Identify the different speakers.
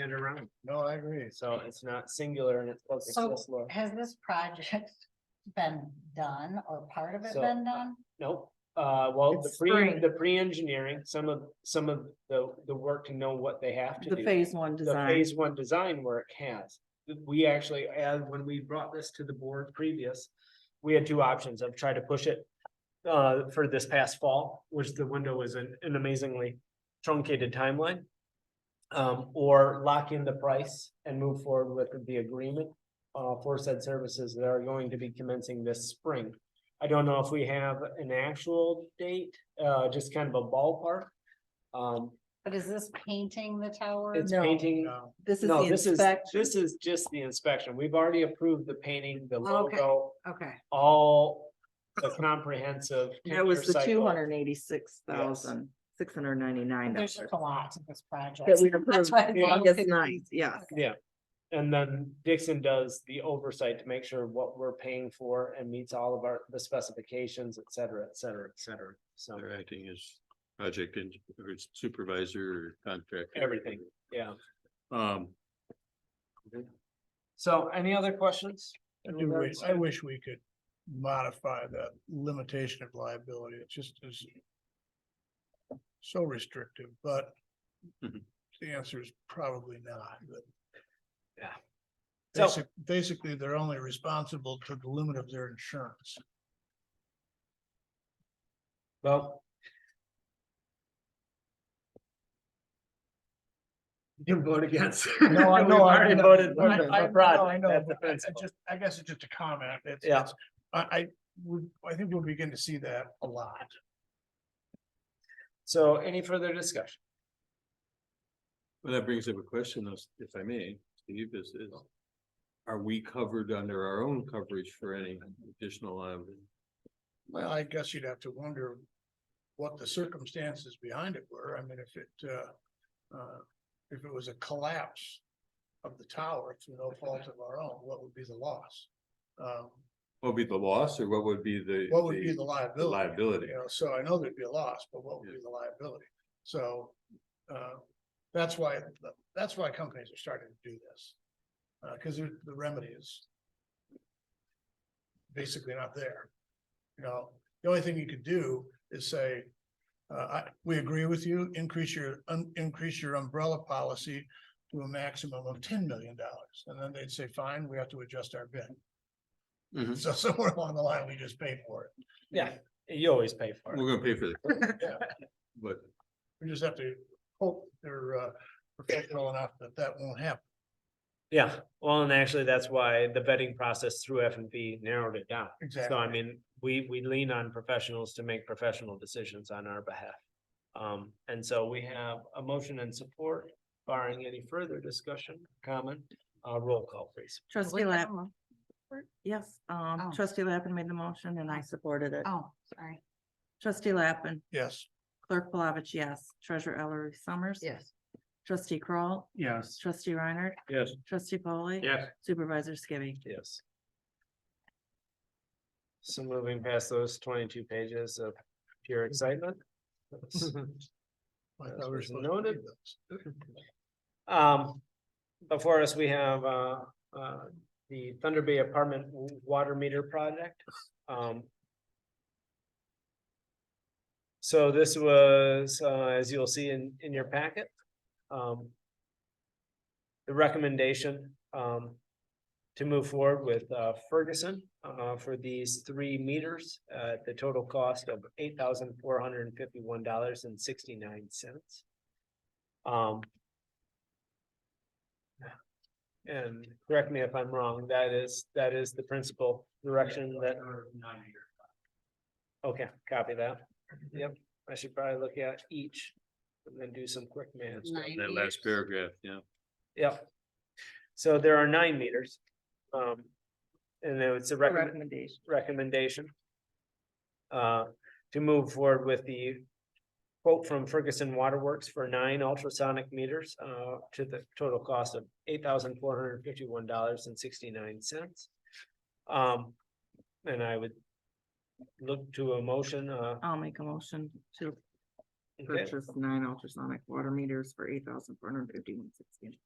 Speaker 1: it around. No, I agree. So it's not singular and it's both
Speaker 2: So-
Speaker 1: access law.
Speaker 2: Has this project been done or part of it
Speaker 1: So-
Speaker 2: been done?
Speaker 1: Nope. Uh, well, the
Speaker 3: It's
Speaker 1: pre,
Speaker 3: spring.
Speaker 1: the pre-engineering, some of, some of the, the work to know what they have to
Speaker 3: The
Speaker 1: do.
Speaker 3: phase one
Speaker 1: The
Speaker 3: design,
Speaker 1: phase one design work has. We actually, as when we brought this to the board previous, we had two options of try to push it. Uh, for this past fall, which the window was an, an amazingly truncated timeline. Um, or lock in the price and move forward with the agreement, uh, for said services that are going to be commencing this spring. I don't know if we have an actual date, uh, just kind of a ballpark. Um,
Speaker 2: But is this painting the tower?
Speaker 1: it's
Speaker 3: Uh, No.
Speaker 1: painting.
Speaker 3: this is the
Speaker 1: No, this is,
Speaker 3: inspection.
Speaker 1: this is just the inspection. We've already approved the painting, the
Speaker 3: Oh,
Speaker 2: Okay.
Speaker 1: logo,
Speaker 2: Okay,
Speaker 1: all the comprehensive.
Speaker 3: That was the
Speaker 1: cycle.
Speaker 3: two hundred and eighty-six thousand, six hundred and ninety-nine
Speaker 2: there's
Speaker 3: dollars.
Speaker 2: just a lot to this
Speaker 3: That
Speaker 2: project.
Speaker 3: we approved
Speaker 2: That's why it's a little
Speaker 3: August
Speaker 2: confusing.
Speaker 3: ninth, yes.
Speaker 2: Okay.
Speaker 1: Yeah, and then Dixon does the oversight to make sure what we're paying for and meets all of our, the specifications, et cetera, et cetera, et cetera. So,
Speaker 4: They're acting as project and or supervisor or contractor.
Speaker 1: Everything. yeah.
Speaker 4: Um,
Speaker 1: So any other questions?
Speaker 5: I
Speaker 1: in
Speaker 5: do wish,
Speaker 1: regards
Speaker 5: I
Speaker 1: to-
Speaker 5: wish we could modify that limitation of liability, it just is. So restrictive, but.
Speaker 1: Mm-hmm.
Speaker 4: Mhm.
Speaker 5: The answer is probably not, but.
Speaker 1: Yeah. So-
Speaker 5: Basic, basically, they're only responsible to the limit of their insurance.
Speaker 1: Well. You can vote against.
Speaker 5: No, I
Speaker 1: We've
Speaker 5: know, I
Speaker 1: already
Speaker 5: know.
Speaker 1: voted
Speaker 5: I-
Speaker 1: for the
Speaker 5: I- no, I
Speaker 1: project.
Speaker 5: know,
Speaker 1: That's
Speaker 5: but I- I
Speaker 1: defensible.
Speaker 5: Just, I guess it's just a comment, it's,
Speaker 1: Yeah.
Speaker 5: it's- I, I, would- I think we'll begin to see that a lot.
Speaker 1: So any further discussion?
Speaker 4: well, that brings up a question, if- if I may, Steve, is, is. Are we covered under our own coverage for any additional um, liability?
Speaker 5: Well, I guess you'd have to wonder what the circumstances behind it were. I mean, if it, uh, uh, if it was a collapse of the tower through no fault of our own, what would be the loss? Um,
Speaker 4: What would be the loss or what would be the?
Speaker 5: what would be the liability?
Speaker 4: Liability.
Speaker 5: You know, so I know there'd be a loss, but what would be the liability? So, uh, that's why, that's why companies are starting to do this. Uh, cause they're- the remedy is basically not there. You know, the only thing you could do is say, uh, I, we agree with you, increase your, um, increase your umbrella policy to a maximum of ten million dollars. And then they'd say, fine, we have to adjust our bid.
Speaker 4: Mhm.
Speaker 5: So somewhere along the line, we just pay for it.
Speaker 1: Yeah, you always pay for it.
Speaker 4: We're gonna pay for that. But
Speaker 5: We just have to hope they're uh professional enough that that won't happen.
Speaker 1: Yeah, well, and actually, that's why the vetting process through F and B narrowed it down. So I mean, we, we lean on professionals to make professional decisions on our behalf. Um, and so we have a motion and support barring any further discussion, comment, uh, roll call please.
Speaker 3: Trustee Lappin, yes, um,
Speaker 2: Oh.
Speaker 3: trustee Lappin made the motion and I supported it.
Speaker 2: Oh, sorry.
Speaker 3: Trustee Lappin,
Speaker 5: Yes.
Speaker 3: clerk Palovich, yes. Treasurer Ellery Summers.
Speaker 2: Yes.
Speaker 3: Trustee Kroll,
Speaker 1: Yes.
Speaker 3: trustee Reiner,
Speaker 4: yes,
Speaker 3: trustee Polly.
Speaker 1: Yes.
Speaker 3: Supervisor Skibby.
Speaker 1: Yes. So moving past those twenty-two pages of pure excitement.
Speaker 5: I thought we were
Speaker 1: As
Speaker 5: supposed to
Speaker 1: noted.
Speaker 5: read those.
Speaker 1: Um, before us, we have, uh, uh, the Thunder Bay Apartment w- Water Meter Project, um. So this was, uh, as you'll see in, in your packet, um. The recommendation, um, to move forward with, uh, Ferguson, uh, for these three meters, uh, at the total cost of eight thousand four hundred and fifty-one dollars and sixty-nine cents. Um, and correct me if I'm wrong, that is, that is the principal direction that. Okay, copy that. Yep, I should probably look at each and then do some quick math.
Speaker 4: that last paragraph, yeah.
Speaker 1: Yep. So there are nine meters. Um, and then it's a
Speaker 3: The
Speaker 1: recommend,
Speaker 3: Recommendation.
Speaker 1: recommendation. Uh, to move forward with the quote from Ferguson Waterworks for nine ultrasonic meters, uh, to the total cost of eight thousand four hundred and fifty-one dollars and sixty-nine cents. Um, and I would look to a motion, uh,
Speaker 3: I'll make a motion to
Speaker 1: okay,
Speaker 3: purchase nine ultrasonic water meters for eight thousand four hundred fifty-one sixteen.